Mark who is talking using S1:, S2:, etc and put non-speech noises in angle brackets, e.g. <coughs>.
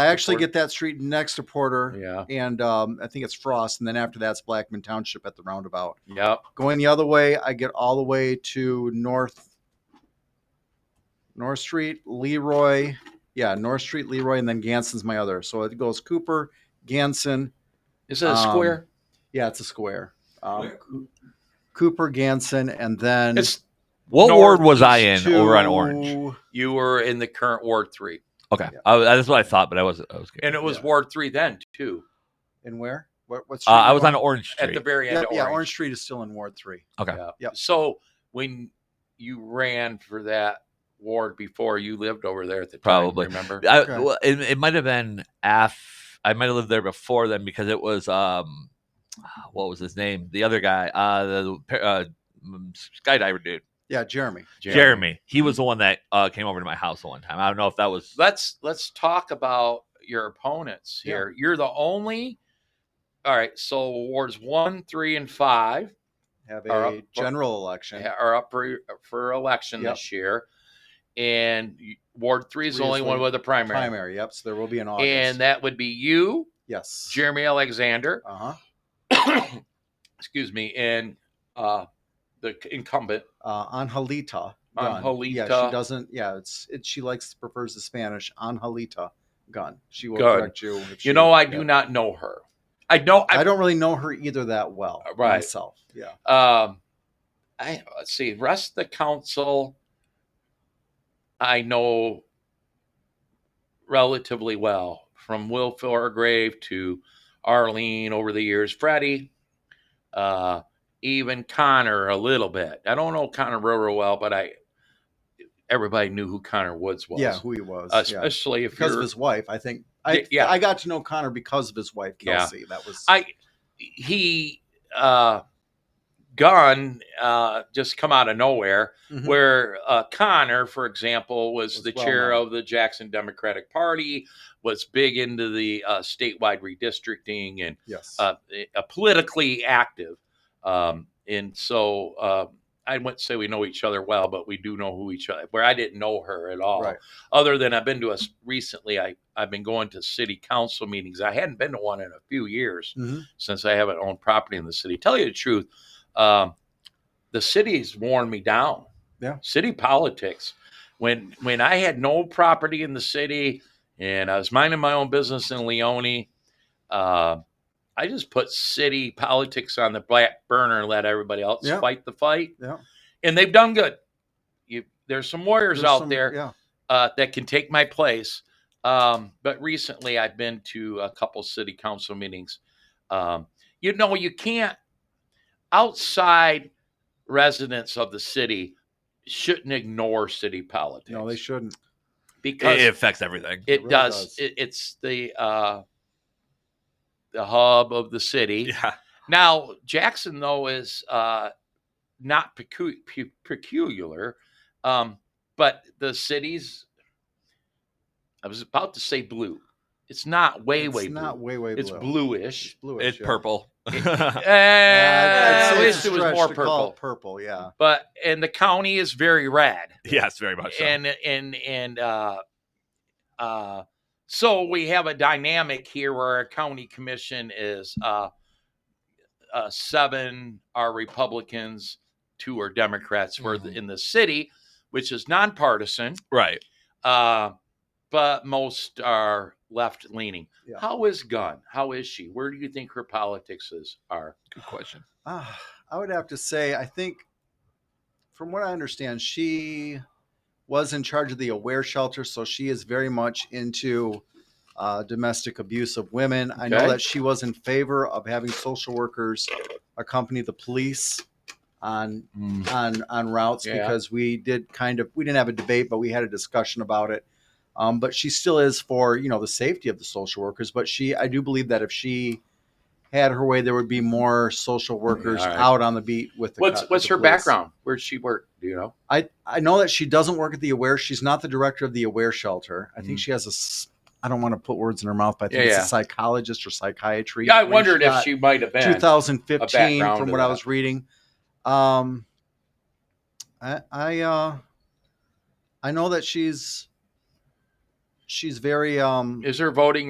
S1: I actually
S2: Porter.
S1: get that street next to Porter,
S2: Yeah.
S1: and um, I think it's Frost, and then after that's Blackman Township at the roundabout.
S2: Yep.
S1: Going the other way, I get all the way to North North Street, Leroy. Yeah, North Street, Leroy, and then Ganson's my other. So it goes Cooper, Ganson.
S2: Is it a
S1: Um,
S2: square?
S1: Yeah, it's a square. Um, Cooper, Ganson, and then
S2: It's
S3: What
S2: North
S3: ward was I in
S1: to-
S3: over on Orange?
S2: you were in the current Ward Three,
S3: Okay,
S1: Yeah.
S3: I, that's what I thought, but I wasn't. I was, good.
S2: and it was
S1: Yeah.
S2: Ward Three then too,
S1: And where? What, what
S3: uh,
S1: street
S3: I
S1: you
S3: was
S1: on?
S3: on Orange
S2: at
S3: Street.
S2: the very end.
S1: Yeah,
S2: of
S1: yeah,
S2: Orange.
S1: Orange Street is still in Ward Three.
S3: Okay.
S2: Yeah.
S1: Yep.
S2: So when you ran for that ward before, you lived over there at the time.
S3: Probably.
S2: remember?
S3: I,
S1: Okay.
S3: well, it, it might have been af. I might have lived there before then because it was um, what was his name? The other guy, uh, the pa- uh, mm, skydiver dude,
S1: Yeah, Jeremy.
S3: Jeremy. He was the one that uh came over to my house the one time. I don't know if that was
S2: Let's let's talk about your opponents
S1: Yeah.
S2: here. You're the only. All right, so wards one, three, and five
S1: Have
S2: Are
S1: a
S2: up- oh,
S1: general election.
S2: ha- are up for, for election
S1: Yep.
S2: this year, and you- Ward Three is the
S1: Three is
S2: only one
S1: the
S2: with a primary,
S1: primary. Yep. So there will be an August.
S2: and that would be you,
S1: yes,
S2: Jeremy
S1: <coughs>
S2: Alexander,
S1: Uh huh.
S2: excuse me, and uh, the c- incumbent.
S1: Uh, Angelita. Gunn. Yeah,
S2: Angelita.
S1: she doesn't. Yeah, it's it. She likes prefers the Spanish. Angelita Gun. She will
S2: Gun.
S1: correct you. if she-
S2: You know, I do
S1: yeah.
S2: not know her. I know
S1: I
S2: I. Uh,
S1: don't really know her either that well.
S2: Right.
S1: Myself. Yeah.
S2: Um, I let's see. Rest of the council, I know relatively well from Will Fairgrave to Arlene over the years. Freddie, uh, even Connor a little bit. I don't know Connor real, real well, but I everybody knew who Connor Woods was.
S1: Yeah. Who he was. yeah.
S2: especially if
S1: Because of
S2: you're-
S1: his wife, I think. I
S2: Yeah.
S1: I got to know Connor because of his wife
S2: Yeah.
S1: Kelsey. That was.
S2: I he uh Gunn uh just come out of nowhere
S1: Mhm.
S2: where uh Connor, for example, was,
S1: Was
S2: the
S1: well
S2: chair
S1: known.
S2: of the Jackson Democratic Party, was big into the uh statewide redistricting and
S1: yes.
S2: uh, uh politically active. Um and so uh I wouldn't say we know each other well, but we do know who each other. Where I didn't know her at all,
S1: Right.
S2: other than I've been to us recently. I I've been going to city council meetings. I hadn't been to one in a few years
S1: Mhm.
S2: since I haven't owned property in the city. Tell you the truth, um, the city's worn me down.
S1: Yeah.
S2: City politics. When when I had no property in the city and I was minding my own business in Leone, uh, I just put city politics on the back burner and let everybody else
S1: Yeah.
S2: fight the fight.
S1: Yeah.
S2: And they've done good. You, there's some warriors
S1: There's
S2: out
S1: some-
S2: there
S1: Yeah.
S2: uh, that can take my place. Um, but recently, I've been to a couple city council meetings. Um, you know, you can't outside residents of the city shouldn't ignore city politics.
S1: No, they shouldn't.
S2: because
S3: it, it affects everything.
S2: it
S1: really
S2: does.
S1: does.
S2: It, it's the uh, the hub of the city.
S3: Yeah.
S2: Now, Jackson, though, is uh, not pecu- pe- peculiar, um, but the city's, I was about to say blue. It's not way,
S1: it's
S2: way
S1: not
S2: blue.
S1: way way.
S2: It's
S1: blue.
S2: bluish.
S1: bluish.
S3: It's
S1: yeah.
S3: purple.
S2: <laughs> Eh,
S1: Yeah, I'd- I'd
S2: I
S1: say
S2: wish
S1: it's a
S2: it was
S1: stretch
S2: Eh, more
S1: to call
S2: purple.
S1: it Purple, yeah.
S2: But, and the county is very red.
S3: yes, very much. So.
S2: and and and uh uh so we have a dynamic here where our county commission is uh uh seven are republicans two are democrats we're th-
S1: Mhm.
S2: in the city which is nonpartisan
S3: right.
S2: uh but most are left leaning
S1: Yeah.
S2: how is gunn how is she where do you think her politics is are
S3: Good question.
S1: Ah, I would have to say, I think, from what I understand, she was in charge of the Aware Shelter, so she is very much into uh, domestic abuse of women. I know
S2: Okay.
S1: that she was in favor of having social workers accompany the police on on on routes
S2: Yeah.
S1: because we did kind of we didn't have a debate, but we had a discussion about it. Um, but she still is for you know the safety of the social workers. But she, I do believe that if she had her way, there would be more social workers
S2: Mm, all right.
S1: out on the beat with the.
S2: what's
S1: co- with
S2: what's
S1: the
S2: her
S1: police.
S2: background where'd she work do you know
S1: I I know that she doesn't work at the Aware. She's not the director of the Aware Shelter. I think she has a. s- I don't want to put words in her mouth, but I think
S2: Mm. Yeah,
S1: it's
S2: yeah.
S1: a psychologist or psychiatry.
S2: yeah i
S1: degree.
S2: wondered if
S1: got-
S2: she might have been
S1: 2015
S2: background
S1: from
S2: to
S1: what I
S2: that.
S1: was reading. Um, I I uh, I know that she's um,
S4: she's very um
S1: Is her voting